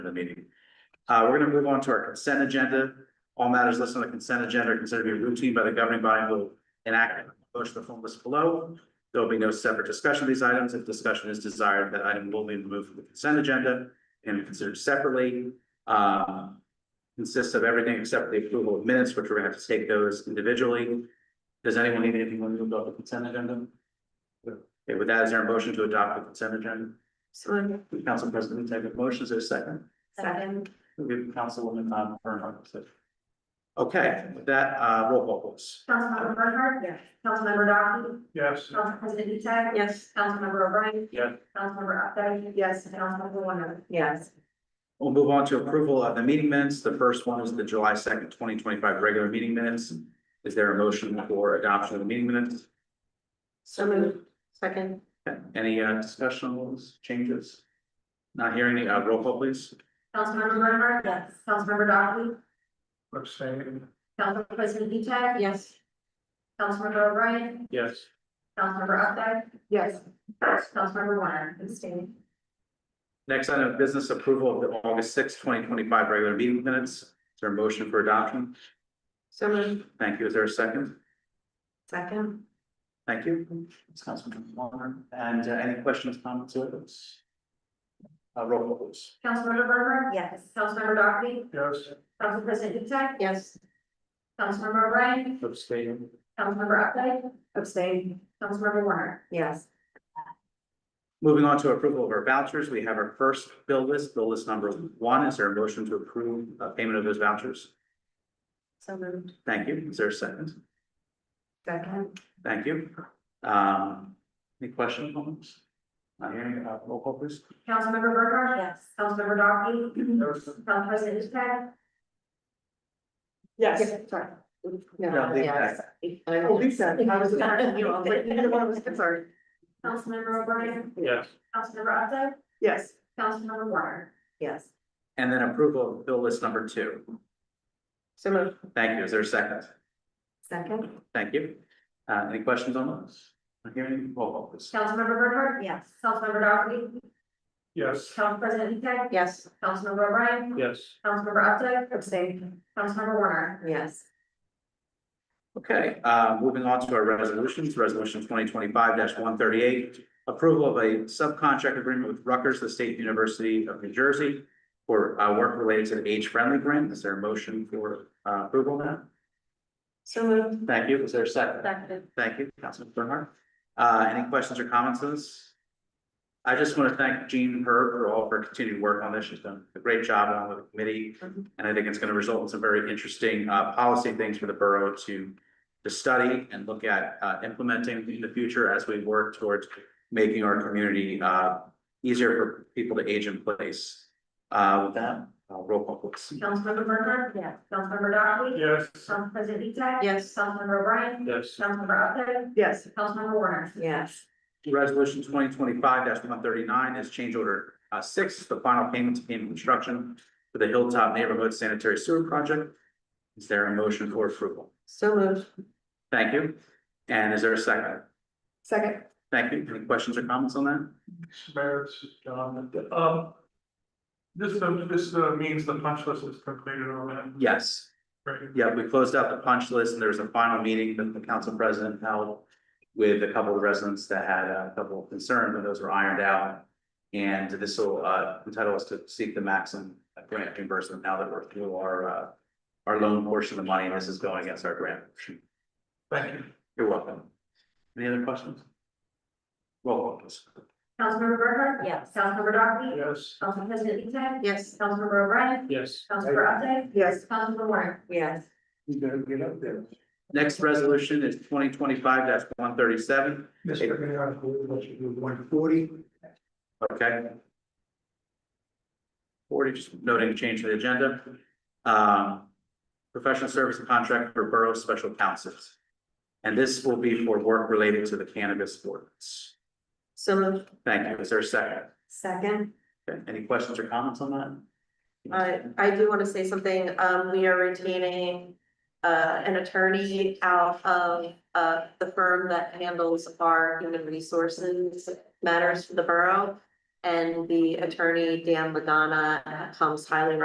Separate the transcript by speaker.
Speaker 1: for the meeting. Uh, we're gonna move on to our consent agenda. All matters listed on the consent agenda are considered to be routine by the governing body and will enact a motion to form list below. There will be no separate discussion of these items. If discussion is desired, that item will be removed from the consent agenda and considered separately. Uh, consists of everything except for the approval of minutes, which we're gonna have to take those individually. Does anyone need anything removed off the consent agenda? Okay, with that, is there a motion to adopt the consent agenda?
Speaker 2: So
Speaker 1: Council President, take a motion, is there a second?
Speaker 2: second,
Speaker 1: We'll give Councilwoman Tom Bernhardt. a second. Okay, with that, uh, roll call please.
Speaker 3: Councilmember Bernhardt?
Speaker 2: Yes.
Speaker 3: Councilmember Dockley?
Speaker 1: Yes.
Speaker 3: Council President Etech?
Speaker 2: yes,
Speaker 3: Councilmember O'Brien?
Speaker 1: Yes.
Speaker 3: Councilmember Updike?
Speaker 2: Yes.
Speaker 3: And Councilmember Warner?
Speaker 2: yes,
Speaker 1: We'll move on to approval of the meeting minutes. The first one is the July second, twenty twenty-five regular meeting minutes. Is there a motion for adoption of the meeting minutes?
Speaker 2: so moved, second,
Speaker 1: Any, uh, discussion on those changes? Not hearing any, uh, roll call please.
Speaker 3: Councilmember Bernhardt?
Speaker 2: Yes.
Speaker 3: Councilmember Dockley?
Speaker 1: Abstain.
Speaker 3: Council President Etech?
Speaker 2: yes,
Speaker 3: Councilmember O'Brien?
Speaker 1: Yes.
Speaker 3: Councilmember Updike?
Speaker 2: yes,
Speaker 3: Councilmember Warner? Abstain.
Speaker 1: Next item of business approval of the August sixth, twenty twenty-five regular meeting minutes. Is there a motion for adoption?
Speaker 2: so moved,
Speaker 1: Thank you. Is there a second?
Speaker 2: second,
Speaker 1: Thank you. Councilman Warner, and uh, any questions, comments, or those? Uh, roll call please.
Speaker 3: Councilmember Bernhardt?
Speaker 2: yes,
Speaker 3: Councilmember Dockley?
Speaker 1: Yes.
Speaker 3: Council President Etech?
Speaker 2: yes,
Speaker 3: Councilmember O'Brien?
Speaker 1: Abstain.
Speaker 3: Councilmember Updike?
Speaker 2: abstain,
Speaker 3: Councilmember Warner?
Speaker 2: yes,
Speaker 1: Moving on to approval of our vouchers, we have our first bill list, bill list number one. Is there a motion to approve uh, payment of those vouchers?
Speaker 2: so moved,
Speaker 1: Thank you. Is there a second?
Speaker 2: second,
Speaker 1: Thank you. Um, any questions, comments? Not hearing, uh, roll call please.
Speaker 3: Councilmember Bernhardt?
Speaker 2: yes.
Speaker 3: Councilmember Dockley?
Speaker 2: Mm-hmm.
Speaker 1: Yes.
Speaker 3: Council President Etech?
Speaker 4: Yes.
Speaker 2: Yeah, Sorry.
Speaker 1: No,
Speaker 2: No,
Speaker 1: leave
Speaker 2: yes. I-
Speaker 4: Oh, Lisa, I was
Speaker 2: Yeah,
Speaker 4: gonna, you know, like, neither one of us, sorry.
Speaker 3: Councilmember O'Brien?
Speaker 1: Yes.
Speaker 3: Councilmember Updike?
Speaker 4: Yes,
Speaker 3: Councilmember Warner?
Speaker 2: Yes,
Speaker 1: And then approval of bill list number two.
Speaker 2: so moved,
Speaker 1: Thank you. Is there a second?
Speaker 2: second,
Speaker 1: Thank you. Uh, any questions on those? Not hearing, any. roll call please.
Speaker 3: Councilmember Bernhardt?
Speaker 2: yes,
Speaker 3: Councilmember Dockley?
Speaker 1: Yes.
Speaker 3: Council President Etech?
Speaker 2: yes,
Speaker 3: Councilmember O'Brien?
Speaker 1: Yes.
Speaker 3: Councilmember Updike?
Speaker 2: abstain,
Speaker 3: Councilmember Warner?
Speaker 2: yes,
Speaker 1: Okay, uh, moving on to our resolutions, resolution twenty twenty-five one thirty-eight. Approval of a subcontract agreement with Rutgers, the State University of New Jersey. For uh, work related to the age-friendly grant. Is there a motion for uh, approval now?
Speaker 2: so moved,
Speaker 1: Thank you. Is there a second?
Speaker 2: second,
Speaker 1: Thank you, Councilman Bernhardt. Uh, any questions or comments on this? I just want to thank Jean Herb for all of her continued work on this. She's done a great job along with the committee.
Speaker 2: Mhm.
Speaker 1: And I think it's going to result in some very interesting, uh, policy things for the borough to, to study and look at, uh, implementing in the future as we work towards making our community, uh, easier for people to age in place. Uh, with that, uh, roll call please.
Speaker 3: Councilmember Bernhardt?
Speaker 2: yes,
Speaker 3: Councilmember Dockley?
Speaker 1: Yes.
Speaker 3: Council President Etech?
Speaker 2: Yes.
Speaker 3: Councilmember O'Brien?
Speaker 1: Yes.
Speaker 3: Councilmember Updike?
Speaker 4: yes,
Speaker 3: Councilmember Warner?
Speaker 2: yes,
Speaker 1: Resolution twenty twenty-five one thirty-nine is change order uh six, the final payment to Payment Construction for the Hilltop Neighborhood Sanitary Sewer Project. Is there a motion for approval?
Speaker 2: so moved,
Speaker 1: Thank you. And is there a second?
Speaker 4: second,
Speaker 1: Thank you. Any questions or comments on that?
Speaker 5: Mayor, this is John. Um, this, uh, this uh, means the punch list is completed on that,
Speaker 1: Yes.
Speaker 5: right?
Speaker 1: Yeah, we closed out the punch list and there was a final meeting that the council president held with a couple of residents that had a couple of concerns, and those were ironed out. And this will uh entitle us to seek the maximum grant reimbursement now that we're through our uh our loan portion of the money, and this is going against our grant. portion.
Speaker 5: Thank you.
Speaker 1: You're welcome. Any other questions? Roll call please.
Speaker 3: Councilmember Bernhardt?
Speaker 2: yes,
Speaker 3: Councilmember Dockley?
Speaker 5: Yes.
Speaker 3: Council President Etech?
Speaker 2: yes,
Speaker 3: Councilmember O'Brien?
Speaker 5: Yes.
Speaker 3: Councilmember Updike?
Speaker 4: yes,
Speaker 3: Councilmember Warner?
Speaker 2: yes,
Speaker 5: You gotta get up there.
Speaker 1: Next resolution is twenty twenty-five one thirty-seven,
Speaker 5: Mr. Mayor, I believe that should be one forty.
Speaker 1: Okay. Forty, just noting a change to the agenda. Um, professional service contract for borough special counsels. And this will be for work related to the cannabis ordinance.
Speaker 2: so moved,
Speaker 1: Thank you. Is there a second?
Speaker 2: second.
Speaker 1: Okay, Any questions or comments on that?
Speaker 2: Uh, I do want to say something, um, we are retaining, uh, an attorney out of, uh, the firm that handles our human resources matters for the borough. And the attorney, Dan Magana, comes highly